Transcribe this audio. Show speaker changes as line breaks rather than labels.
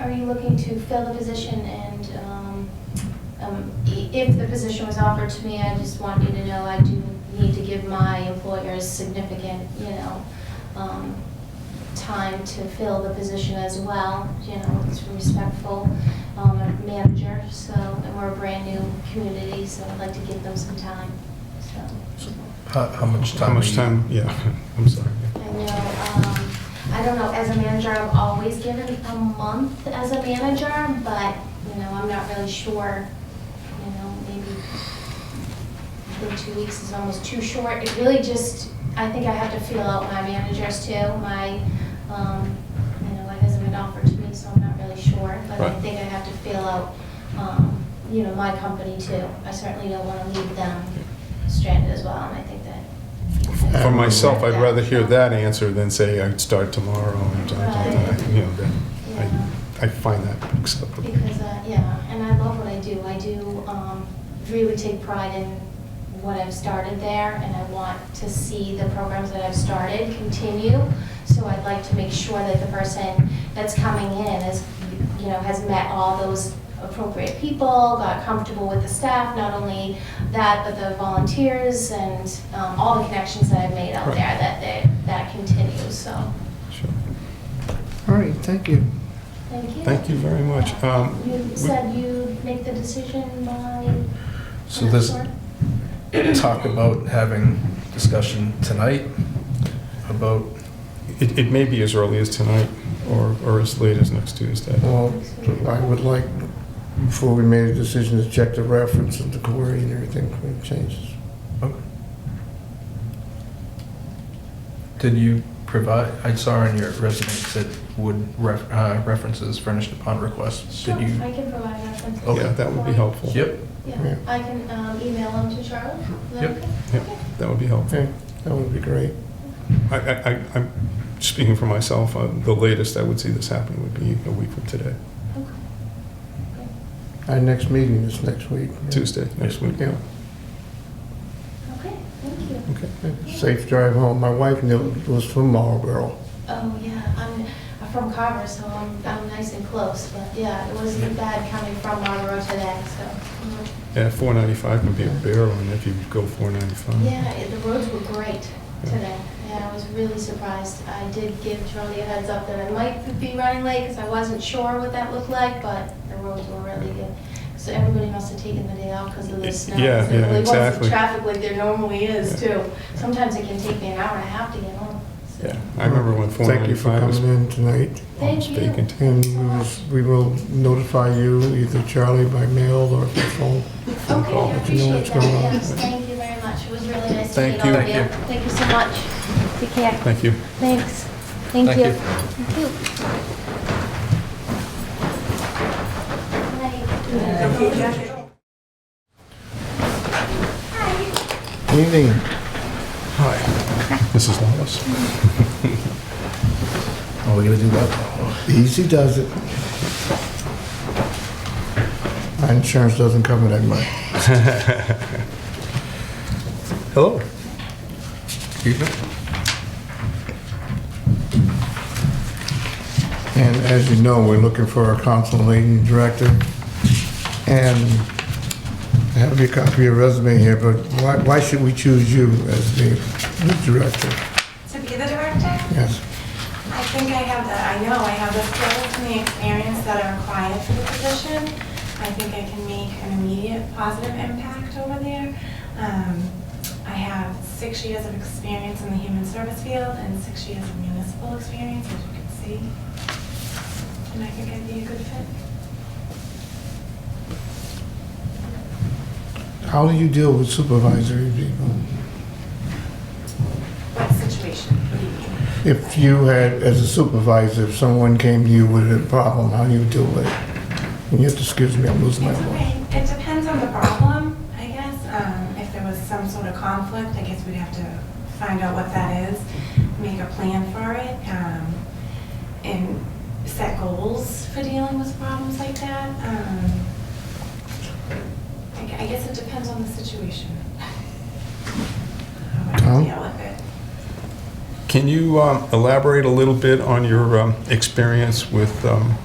Are you looking to fill the position and um, um, i- if the position was offered to me, I just want you to know I do need to give my employers significant, you know, um, time to fill the position as well, you know, it's respectful um, manager, so, and we're a brand-new community, so I'd like to give them some time, so.
How, how much time?
How much
are you-
time, yeah, I'm sorry.
I know, um, I don't know, as a manager, I've always given a month as a manager, but, you know, I'm not really sure, you know, maybe, I think two weeks is almost too short. It really just, I think I have to feel out my managers too, my, um, you know, it hasn't been offered to me, so I'm not really sure. But I
Right.
think I have to feel out, um, you know, my company too. I certainly don't want to leave them stranded as well, and I think that
Um,
For myself, I'd rather hear that answer than say I'd start tomorrow and, blah, blah, blah. you know, that, I, I find that acceptable.
Because, uh, yeah, and I love what I do. I do um, really take pride in what I've started there, and I want to see the programs that I've started continue. So I'd like to make sure that the person that's coming in is, you know, has met all those appropriate people, got comfortable with the staff, not only that, but the volunteers and um, all the connections that I've made out there,
Right.
that they, that continues, so,
Sure.
All right, thank you.
thank you.
Thank you very much. Um,
You said you'd make the decision by...
So there's
Sure.
talk about having discussion tonight about,
It, it may be as early as tonight or, or as late as next Tuesday.
Oh,
Well, I would like, before we made a decision, to check the reference and the query and everything, if it changes.
oh. did you provide, I saw in your resume it said would ref- uh, references furnished upon request.
Sure,
Did you?
I can provide references.
Okay.
Yeah, that would be helpful.
Yep,
Yeah,
Yeah.
I can um, email them to Charlotte. Is that
Yep.
okay?
Yep.
Okay.
That would be helpful.
Okay, that would be great.
I, I, I- I'm speaking for myself, uh, the latest I would see this happen would be a week from today,
Okay.
Our next meeting is next week.
Tuesday, next week.
Yeah.
Okay, thank you.
Okay.
Safe drive home. My wife knew it was from Marlboro.
Oh, yeah, I'm I'm from Carver, so I'm I'm nice and close, but yeah, it wasn't bad coming from Marlboro today, so. mm.
Yeah, 495 can be a bear on if you go 495.
Yeah, it- the roads were great today. Yeah, I was really surprised. I did give Charlie a heads up that I might be running late because I wasn't sure what that looked like, but the roads were really good. So everybody must have taken the day off because of the snow.
Yeah,
So there
yeah,
really wasn't
exactly.
Traffic like there normally is too. Sometimes it can take me an hour and a half to get home. so.
Yeah, I remember when
Thank you for
495 was
coming in tonight.
Thank you.
vacant.
And we was- we will notify you, either Charlie by mail or by phone.
Okay,
call.
I
Let you know
appreciate
what's
that.
going on.
Yes, thank you very much. It was really nice to
Thank
meet all of
you.
you.
Thank
Thank you so much. Take care.
Thank you.
Thanks. Thank
Thank
you.
you.
Thank you.
Evening.
Hi. Mrs. Lawless.
oh, we're gonna do that.
Easy does it. Our insurance doesn't cover that much.
Hello. Evening.
And as you know, we're looking for a council leading director. And I have your copy of your resume here, but why, why should we choose you as the new director?
To be the director?
Yes.
I think I have the, I know I have the skills and the experience that are required for the position. I think I can make an immediate positive impact over there. Um, I have six years of experience in the human service field and six years of municipal experience, as you can see. And I think I'd be a good fit.
How do you deal with supervisory people?
What situation?
If you had, as a supervisor, if someone came to you with a problem, how do you deal with it? And you have to excuse me, I'm losing my
It's
voice.
okay. It depends on the problem, I guess. Um, If there was some sort of conflict, I guess we'd have to find out what that is, make a plan for it, um, and set goals for dealing with problems like that. Um, I gu- I guess it depends on the situation. How
Tom?
I deal with it.
Can you um, elaborate a little bit on your um, experience with um,